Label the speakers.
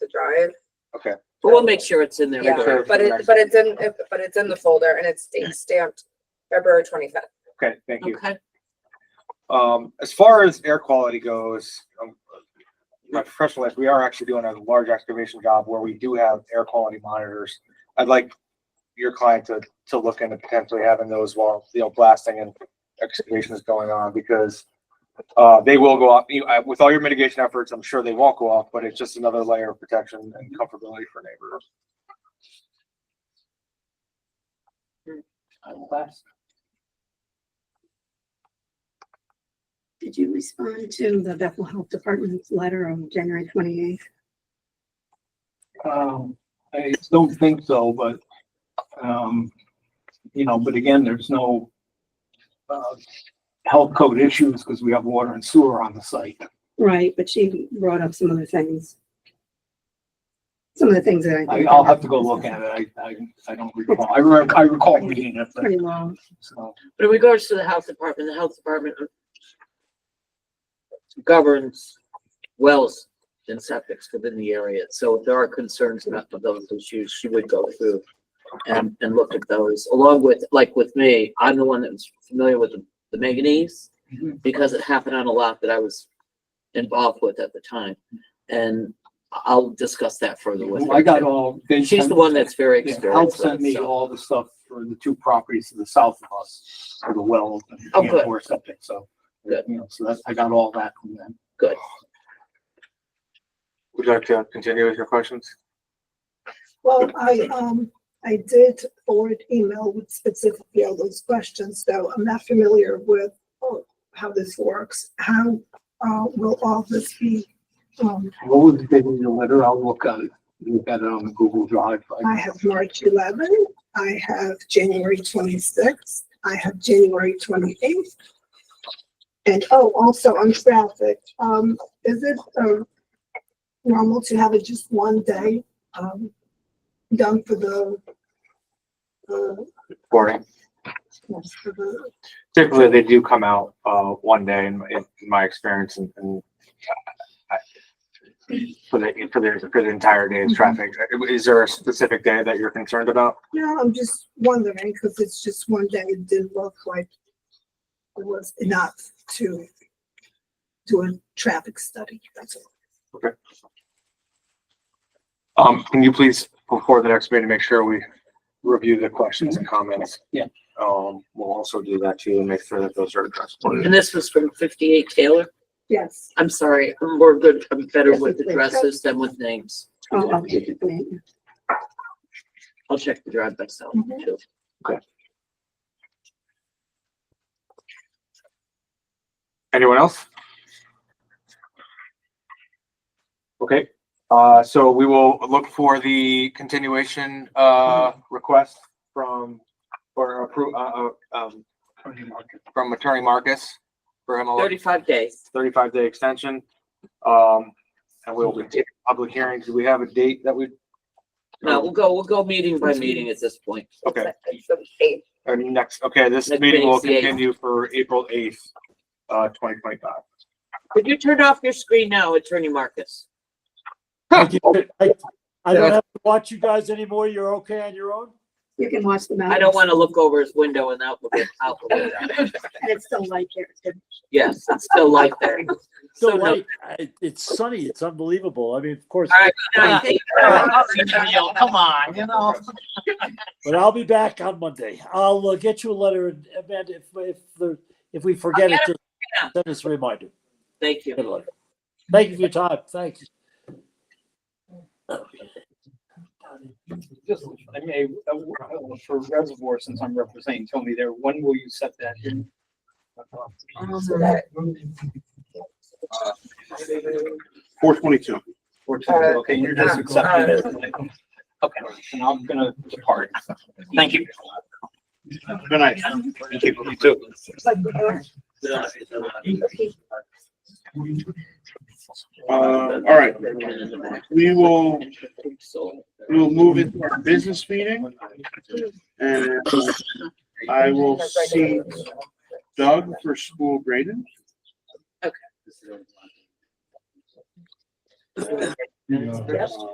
Speaker 1: started.
Speaker 2: Okay.
Speaker 3: But we'll make sure it's in there.
Speaker 1: Yeah.
Speaker 3: regardless.
Speaker 1: But it, but it's in, but it's in the folder and it's date stamped February twenty-fifth.
Speaker 2: Okay, thank you.
Speaker 3: Okay,
Speaker 2: Um, as far as air quality goes, um, my professional life, we are actually doing a large excavation job where we do have air quality monitors. I'd like your client to, to look into potentially having those while, you know, blasting and excavation is going on because uh, they will go off, you, I- with all your mitigation efforts, I'm sure they won't go off, but it's just another layer of protection and comfortability for neighbors.
Speaker 3: I'm glad.
Speaker 4: Did you respond to the Bethel Health Department's letter on January twenty-eighth?
Speaker 5: Um, I don't think so, but, um, you know, but again, there's no, uh, health code issues because we have water and sewer on the site.
Speaker 4: Right, but she brought up some other things. Some of the things that I.
Speaker 5: I,
Speaker 4: think-
Speaker 5: I'll have to go look at it. I, I, I don't recall. I remember, I recall reading it, but,
Speaker 4: Pretty long.
Speaker 5: so,
Speaker 3: But in regards to the health department, the health department governs wells and septics within the area. So if there are concerns about those issues, she would go through and, and look at those, along with, like with me, I'm the one that was familiar with the- the manganese
Speaker 5: Mhm.
Speaker 3: because it happened on a lot that I was involved with at the time. And I'll discuss that further with her.
Speaker 5: I got all. they
Speaker 3: She's the
Speaker 5: sent-
Speaker 3: one that's very
Speaker 5: Yeah, Health
Speaker 3: experienced. with
Speaker 5: sent
Speaker 3: it,
Speaker 5: me
Speaker 3: so-
Speaker 5: all the stuff for the two properties to the south of us, for the wells and
Speaker 3: Oh, good.
Speaker 5: or something, so.
Speaker 3: Good.
Speaker 5: You know, so that's, I got all that from them.
Speaker 2: Would you like to continue with your questions?
Speaker 6: Well, I, um, I did forward email with specifically all those questions, though I'm not familiar with oh, how this works. How, uh, will all this be, um,
Speaker 5: What was the date of the letter? I'll look at it, look at it on the Google Drive.
Speaker 6: I have March 11, I have January 26, I have January 28. And, oh, also on traffic, um, is it, uh, normal to have it just one day, um, done for the, uh,
Speaker 2: Boarding.
Speaker 6: Yes, for the-
Speaker 2: typically they do come out uh one day in, in my experience and, and uh, I- for the for the for the entire day's traffic. Uh, Is there a specific day that you're concerned about?
Speaker 6: No, I'm just wondering, because it's just one day, it didn't look like it was enough to do a traffic study, that's all.
Speaker 2: Um, can you please before the next meeting make sure we review the questions and comments?
Speaker 5: Yeah.
Speaker 2: Um, we'll also do that too and make sure that those are addressed.
Speaker 3: And this was from fifty-eight Taylor?
Speaker 6: Yes.
Speaker 3: I'm sorry, I'm more good, I'm better
Speaker 4: Yes,
Speaker 3: with
Speaker 4: it's like-
Speaker 3: addresses than with names.
Speaker 4: Oh, I'll get it later.
Speaker 3: I'll check the drive myself
Speaker 4: Mm-hmm.
Speaker 6: Mhm.
Speaker 3: too.
Speaker 2: Anyone else? Okay, uh, so we will look for the continuation, uh, request from, for appro, uh, uh, um, from Attorney Marcus for him a
Speaker 3: Thirty-five days.
Speaker 2: thirty-five day extension. Um, and we'll continue public hearings. Do we have a date that we?
Speaker 3: No, we'll go, we'll go meeting by meeting at this point.
Speaker 2: Okay.
Speaker 1: It's the eighth.
Speaker 2: Our next, okay, this
Speaker 3: Next
Speaker 2: meeting will
Speaker 3: meeting's the eighth.
Speaker 2: continue for April eighth, uh, twenty twenty-five.
Speaker 3: Could you turn off your screen now, Attorney Marcus?
Speaker 7: I I
Speaker 2: Yeah.
Speaker 7: don't have to watch you guys anymore. You're okay on your own?
Speaker 4: You can watch the mountains.
Speaker 3: I don't want to look over his window and out, look at- out. the window.
Speaker 4: And it's still light here. It's good.
Speaker 3: Yes, it's still like that. So
Speaker 7: No,
Speaker 3: no,
Speaker 7: like, I- It's sunny. It's unbelievable. I mean, of course,
Speaker 3: All right. I think-
Speaker 8: Come on, you know.
Speaker 7: but I'll be back on Monday. I'll uh, get you a letter and Amanda, if, if, the- if we forget it, just
Speaker 3: out.
Speaker 7: send us a reminder.
Speaker 3: Thank you.
Speaker 7: Good luck. Thank you for your time. Thanks.
Speaker 8: Just, I may, uh, for reservoir, since I'm representing Tony there, when will you set that in?
Speaker 2: Four twenty-two.
Speaker 8: Or to, okay, you're just accepting it. Okay, and I'm gonna depart. Thank you.
Speaker 2: Good night. Thank you. You too. Uh, all right. We will, we will move into our business meeting. And I will see Doug for school grading.
Speaker 3: Okay.
Speaker 2: Uh,